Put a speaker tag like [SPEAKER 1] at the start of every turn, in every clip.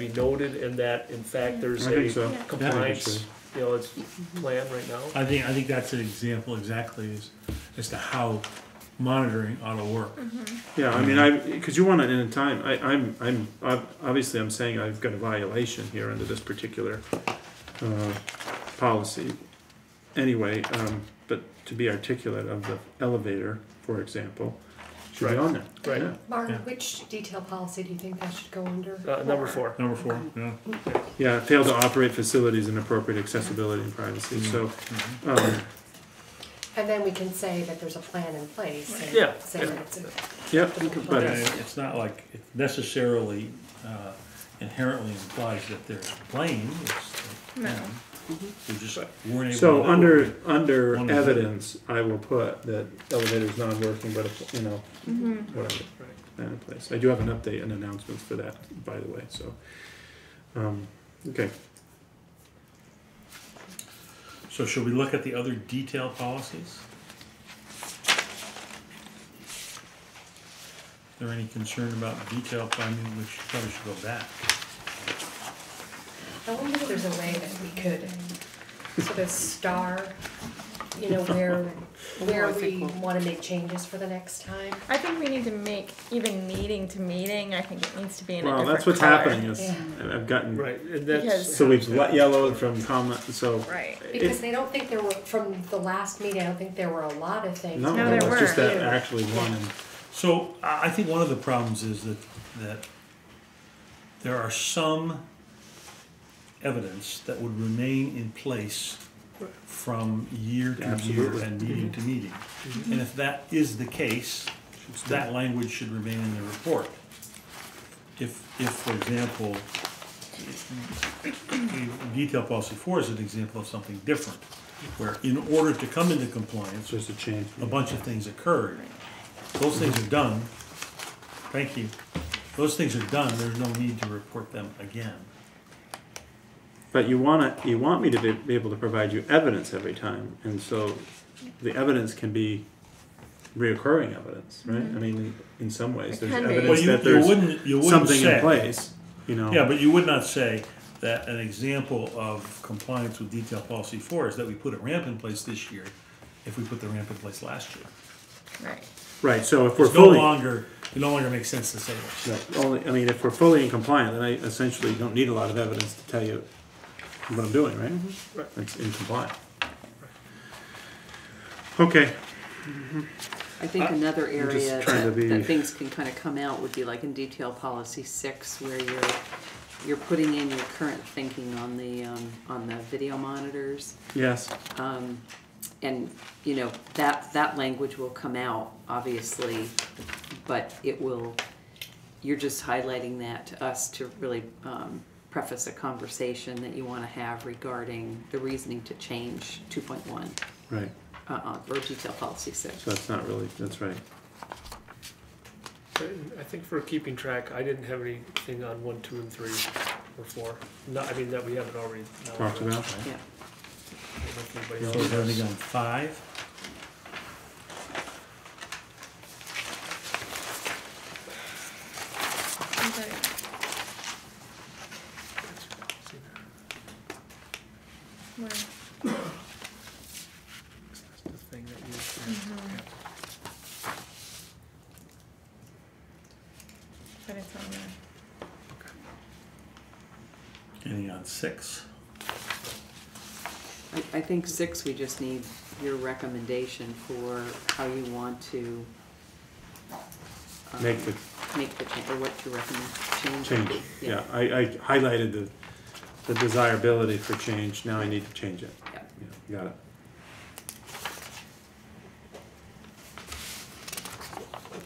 [SPEAKER 1] be noted in that, in fact, there's
[SPEAKER 2] I think
[SPEAKER 1] a
[SPEAKER 2] so.
[SPEAKER 3] Yeah.
[SPEAKER 1] compliance, you know, it's plan right now.
[SPEAKER 2] I think, I think that's an example exactly as, as to how monitoring ought to work.
[SPEAKER 4] Yeah, I mean, I, because you want it in time, I, I'm, I'm, ob- obviously, I'm saying I've got a violation here under this particular, uh, policy. Anyway, um, but to be articulate of the elevator, for example, should be
[SPEAKER 1] Right.
[SPEAKER 4] on there.
[SPEAKER 1] Right.
[SPEAKER 4] Yeah.
[SPEAKER 5] Mark,
[SPEAKER 2] Yeah.
[SPEAKER 5] which detail policy do you think that should go under?
[SPEAKER 1] Uh, number four,
[SPEAKER 2] Number four, yeah.
[SPEAKER 4] Yeah, fail to operate facilities and appropriate accessibility and privacy,
[SPEAKER 1] Mm.
[SPEAKER 4] so,
[SPEAKER 2] Mm-hmm.
[SPEAKER 4] um,
[SPEAKER 5] And then we can say that there's a plan in place and
[SPEAKER 1] Yeah.
[SPEAKER 5] say that it's a.
[SPEAKER 4] yep,
[SPEAKER 2] But
[SPEAKER 4] but,
[SPEAKER 2] it- it's not like it necessarily uh, inherently implies that they're playing.
[SPEAKER 3] No.
[SPEAKER 2] We just weren't able to.
[SPEAKER 4] so
[SPEAKER 2] know.
[SPEAKER 4] under, under
[SPEAKER 2] One of the-
[SPEAKER 4] evidence, I will put that elevator's not working, but, if, you know,
[SPEAKER 3] Mm-hmm.
[SPEAKER 4] whatever, that in place. I do have an update and announcements for that, by the way, so. Um, okay,
[SPEAKER 2] So should we look at the other detail policies? Is there any concern about detail planning, which probably should go back?
[SPEAKER 5] I wonder if there's a way that we could sort of star, you know, where, where
[SPEAKER 6] Oh, I
[SPEAKER 5] we
[SPEAKER 6] think
[SPEAKER 5] wanna make changes for the next time.
[SPEAKER 3] I think we need to make even meeting to meeting. I think it needs to be in a
[SPEAKER 4] well,
[SPEAKER 3] different
[SPEAKER 4] that's what's
[SPEAKER 3] color.
[SPEAKER 4] happening is,
[SPEAKER 5] Yeah.
[SPEAKER 4] I've gotten,
[SPEAKER 1] right, and that's,
[SPEAKER 3] Because-
[SPEAKER 4] so we've let yellowed from comment, so.
[SPEAKER 3] Right.
[SPEAKER 5] Because they don't think there were, from the last meeting, I don't think there were a lot of things.
[SPEAKER 4] No,
[SPEAKER 3] No,
[SPEAKER 4] it
[SPEAKER 3] there
[SPEAKER 4] was just
[SPEAKER 3] were.
[SPEAKER 4] that actually one, and
[SPEAKER 2] So I I think one of the problems is that that there are some evidence that would remain in place from year to year
[SPEAKER 4] Absolutely.
[SPEAKER 2] and meeting to meeting. And if that is the case, that language should remain in the report. If, if, for example, the detail policy four is an example of something different, where in order to come into
[SPEAKER 4] it's
[SPEAKER 2] compliance,
[SPEAKER 4] just a change.
[SPEAKER 2] a bunch of things occurred. Those things are done. Thank you. Those things are done, there's no need to report them again.
[SPEAKER 4] But you wanna, you want me to be, be able to provide you evidence every time, and so the evidence can be reoccurring evidence, right? I mean, in, in some ways,
[SPEAKER 3] Mm-hmm. It
[SPEAKER 4] there's
[SPEAKER 3] can be.
[SPEAKER 2] Well,
[SPEAKER 4] evidence
[SPEAKER 2] you,
[SPEAKER 4] that
[SPEAKER 2] you
[SPEAKER 4] there's
[SPEAKER 2] wouldn't, you wouldn't
[SPEAKER 4] something in
[SPEAKER 2] say.
[SPEAKER 4] place, you know?
[SPEAKER 2] Yeah, but you would not say that an example of compliance with detail policy four is that we put a ramp in place this year if we put the ramp in place last year.
[SPEAKER 3] Right.
[SPEAKER 4] Right, so if we're
[SPEAKER 2] It's no
[SPEAKER 4] fully,
[SPEAKER 2] longer, it no longer makes sense to say that.
[SPEAKER 4] no, only, I mean, if we're fully in compliant, then I essentially don't need a lot of evidence to tell you what I'm doing, right?
[SPEAKER 1] Right.
[SPEAKER 4] It's in compliant. Okay,
[SPEAKER 6] I think another area
[SPEAKER 4] Uh, trying to
[SPEAKER 6] that,
[SPEAKER 4] be-
[SPEAKER 6] that things can kind of come out would be like in detail policy six, where you're, you're putting in your current thinking on the, um, on the video monitors.
[SPEAKER 4] yes,
[SPEAKER 6] Um, and, you know, that, that language will come out, obviously, but it will, you're just highlighting that to us to really, um, preface a conversation that you wanna have regarding the reasoning to change two point one,
[SPEAKER 4] right,
[SPEAKER 6] uh, uh, or detail policy six.
[SPEAKER 4] so that's not really, that's right.
[SPEAKER 1] I think for keeping track, I didn't have anything on one, two, and three, or four. No, I mean, that we haven't already.
[SPEAKER 4] talked about.
[SPEAKER 6] Yeah.
[SPEAKER 1] I don't know if anybody
[SPEAKER 2] So is there
[SPEAKER 1] else
[SPEAKER 2] anything
[SPEAKER 1] has.
[SPEAKER 2] on five?
[SPEAKER 3] Where-
[SPEAKER 1] That's the thing that you-
[SPEAKER 3] But it's on there.
[SPEAKER 2] Anything on six?
[SPEAKER 6] I, I think six, we just need your recommendation for how you want to. um,
[SPEAKER 4] Make the
[SPEAKER 6] Make the change, or what you recommend, change.
[SPEAKER 4] change, yeah, I, I highlighted the, the desirability for change, now I need to change it.
[SPEAKER 6] Yeah.
[SPEAKER 4] Yeah, Got it.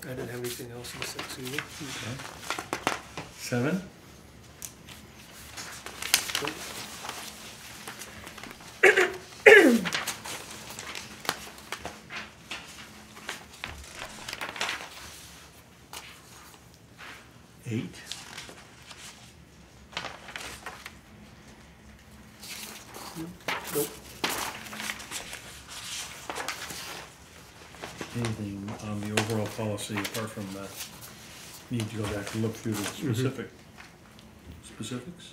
[SPEAKER 1] I didn't have anything else in six either.
[SPEAKER 2] Seven? Eight?
[SPEAKER 1] Nope.
[SPEAKER 2] Anything on the overall policy apart from the need to go back and look through the specific specifics?